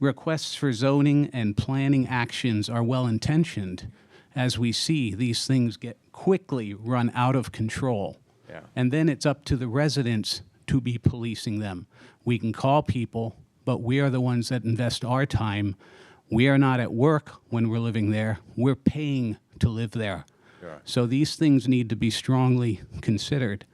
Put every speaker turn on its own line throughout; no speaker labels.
requests for zoning and planning actions are well intentioned. As we see, these things get quickly run out of control.
Yeah.
And then it's up to the residents to be policing them. We can call people, but we are the ones that invest our time. We are not at work when we're living there, we're paying to live there.
Sure.
So these things need to be strongly considered.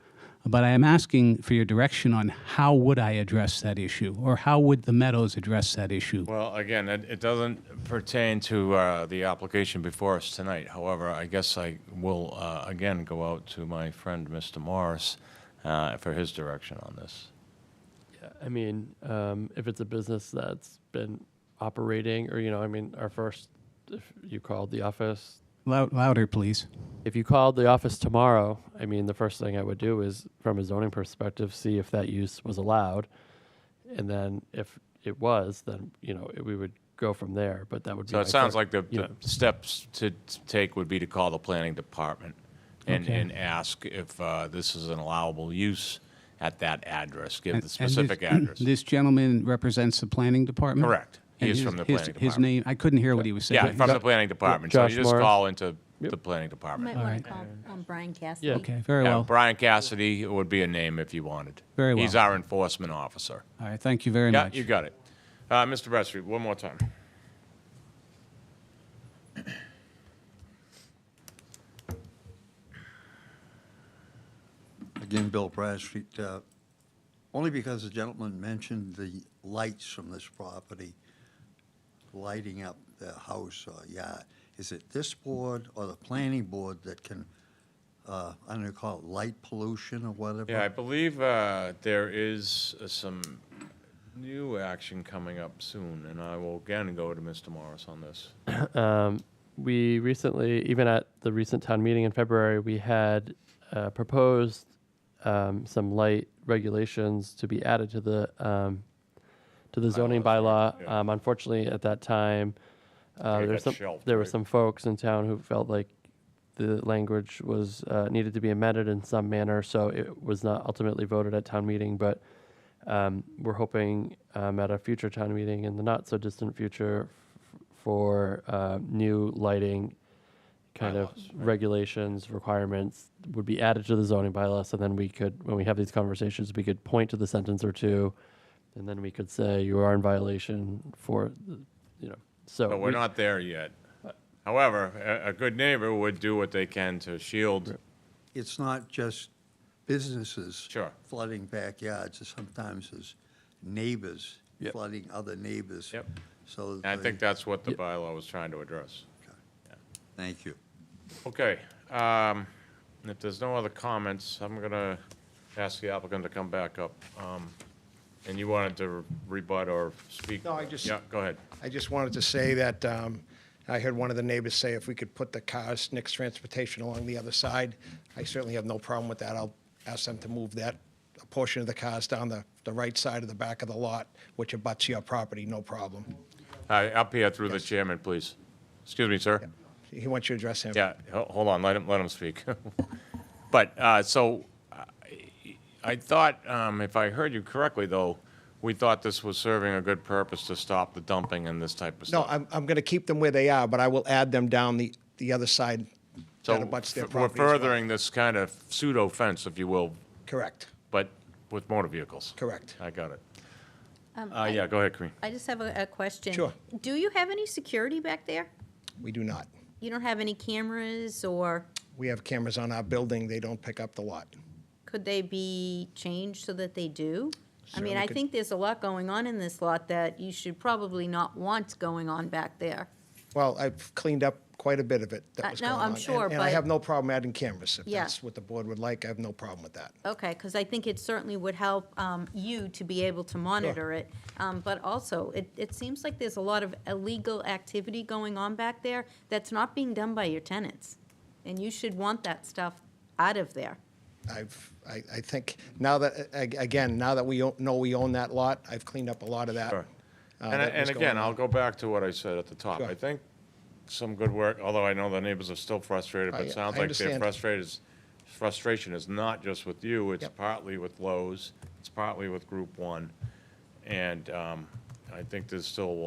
But I am asking for your direction on how would I address that issue, or how would the Meadows address that issue?
Well, again, it, it doesn't pertain to uh, the application before us tonight. However, I guess I will, uh, again, go out to my friend, Mr. Morris, uh, for his direction on this.
I mean, um, if it's a business that's been operating, or you know, I mean, our first, if you called the office,
Lou- louder, please.
if you called the office tomorrow, I mean, the first thing I would do is, from a zoning perspective, see if that use was allowed, and then if it was, then you know, it, we would go from there. But that would be.
So
my
it sounds
fir-
like the,
you
the
know,
steps to t- take would be to call the planning department and,
Okay.
and ask if uh, this is an allowable use at that address, give the
And- and this-
specific address.
This gentleman represents the planning department?
Correct. He
And
is
his-
from the
his-
planning
His
department.
name, I couldn't hear what he was saying.
Yeah, from the planning department. So
Josh
you just
Morris.
call into the planning department.
Might want to call um, Brian Cassidy.
Yeah.
Okay, very
Yeah,
well. All
Brian Cassidy would be a name if you wanted.
Very
He's
well.
our enforcement officer.
right, thank you very
Yeah,
much.
you got it. Uh, Mr. Bradstreet, one more time.
Again, Bill Bradstreet, uh, only because the gentleman mentioned the lights from this property lighting up the house or yard. Is it this board or the planning board that can, uh, I don't know, call it light pollution or whatever?
Yeah, I believe uh, there is uh, some new action coming up soon, and I will again go to Mr. Morris on this.
Uh,
Um, we recently, even at the recent town meeting in February, we had uh, proposed um, some light regulations to be added to the um, to the zoning bylaw.
yeah.
Um, unfortunately, at that time,
think it
uh, there, were
got
some,
shelved,
there were
right?
some folks in town who felt like the language was uh, needed to be amended in some manner, so it was not ultimately voted at town meeting. But um, we're hoping um, at a future town meeting in the not so distant future f- for uh, new lighting kind
Bylaws,
of regulations requirements would be added to the zoning bylaw so then we could when we have these conversations we could point to the sentence or two and then we could say you are in violation for the- you know so
But we're
we-
not there yet. However, a- a good neighbor would do what they can to shield.
It's not just businesses.
Sure.
Flooding backyards, it's sometimes it's neighbors
Yep.
flooding other neighbors.
Yep.
So.
And I
they-
think that's what the bylaw was trying to address.
Thank you.
Okay, um, if there's no other comments, I'm gonna ask the applicant to come back up. Um, And you wanted to rebut or speak?
No, I just-
Yeah, go ahead.
I just wanted to say that um, I heard one of the neighbors say if we could put the cars, Nick's Transportation along the other side, I certainly have no problem with that. I'll ask them to move that portion of the cars down the, the right side of the back of the lot, which abuts your property, no problem.
Uh, Up here through the chairman, please. Excuse me, sir?
He wants you to address him.
Yeah, ho- hold on, let him, let him speak. But, uh, so, I- I thought, um, if I heard you correctly, though, we thought this was serving a good purpose to stop the dumping and this type of
No,
stuff.
I'm, I'm going to keep them where they are, but I will add them down the, the other side that abuts their
So, we're
property as well.
furthering this kind of pseudo fence, if you will,
Correct,
But with motor vehicles?
correct.
I got it. Uh, yeah, go ahead, Kareem.
I just have a, a question.
Sure.
Do you have any security back there?
We do not.
You don't have any cameras, or
We have cameras on our building, they don't pick up the lot.
could they be changed so that they do? I mean,
Certainly
I
could.
think there's a lot going on in this lot that you should probably not want going on back there.
Well, I've cleaned up quite a bit of it
Uh,
that was
no,
going on.
I'm
and-
sure,
And I
but-
have no problem adding cameras. If
Yeah.
that's what the board would like, I have no problem with that.
Okay, because I think it certainly would help um, you to be able to monitor it. Um, But also, it, it seems like there's a lot of illegal activity going on back there that's not being done by your tenants. And you should want that stuff out of there.
I've, I, I think, now that, a- again, now that we o- know we own that lot, I've cleaned up a lot of that.
Sure.
uh,
And,
that was
and again,
going on.
I'll go back to what I said at the top.
Sure.
I think some good work, although I know the neighbors are still frustrated, but
I-
it sounds
I
like their
understand.
frustrated, frustration is not just with you, it's
Yep.
partly with Lowe's, it's partly with Group One. And, um, I think there's still